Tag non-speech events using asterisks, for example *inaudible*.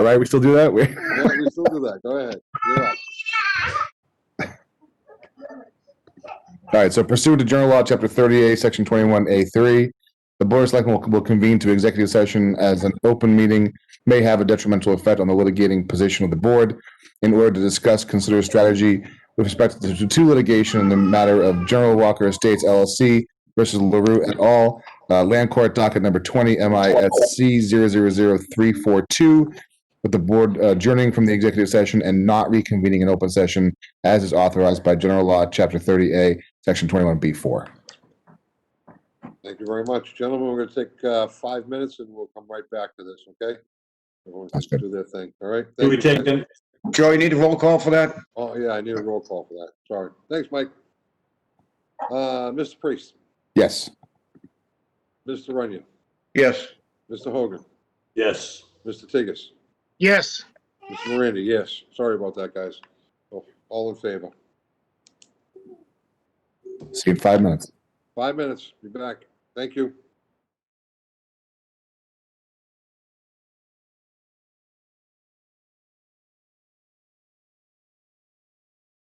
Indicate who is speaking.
Speaker 1: All right, we still do that? *laughs* We-
Speaker 2: Yeah, we still do that. Go ahead. You're up.
Speaker 1: All right, so pursuant to General Law, Chapter 38, Section 21A3, the Board of Selectmen will- will convene to executive session as an open meeting may have a detrimental effect on the litigating position of the board in order to discuss, consider strategy with respect to to litigation in the matter of General Walker Estates LLC versus LaRue et al., uh, Land Court Docket Number 20 MISC 000342, with the board adjourning from the executive session and not reconvening in open session as is authorized by General Law, Chapter 30A, Section 21B4.
Speaker 2: Thank you very much. Gentlemen, we're gonna take, uh, five minutes and we'll come right back to this, okay? Everyone
Speaker 1: That's
Speaker 2: can do their thing, all right?
Speaker 3: Do we
Speaker 2: Thank you,
Speaker 3: take,
Speaker 2: guys.
Speaker 3: a-
Speaker 4: Joe, you need a roll call for that?
Speaker 2: Oh, yeah, I need a roll call for that. Sorry. Thanks, Mike. Uh, Mr. Priest,
Speaker 1: Yes.
Speaker 2: Mr. Runyon,
Speaker 4: Yes.
Speaker 2: Mr. Hogan,
Speaker 3: yes.
Speaker 2: Mr. Tigas,
Speaker 4: Yes.
Speaker 2: Mr. Miranda, yes. Sorry about that, guys. Oh, All in favor?
Speaker 1: See you in five minutes.
Speaker 2: Five minutes, be back. Thank you.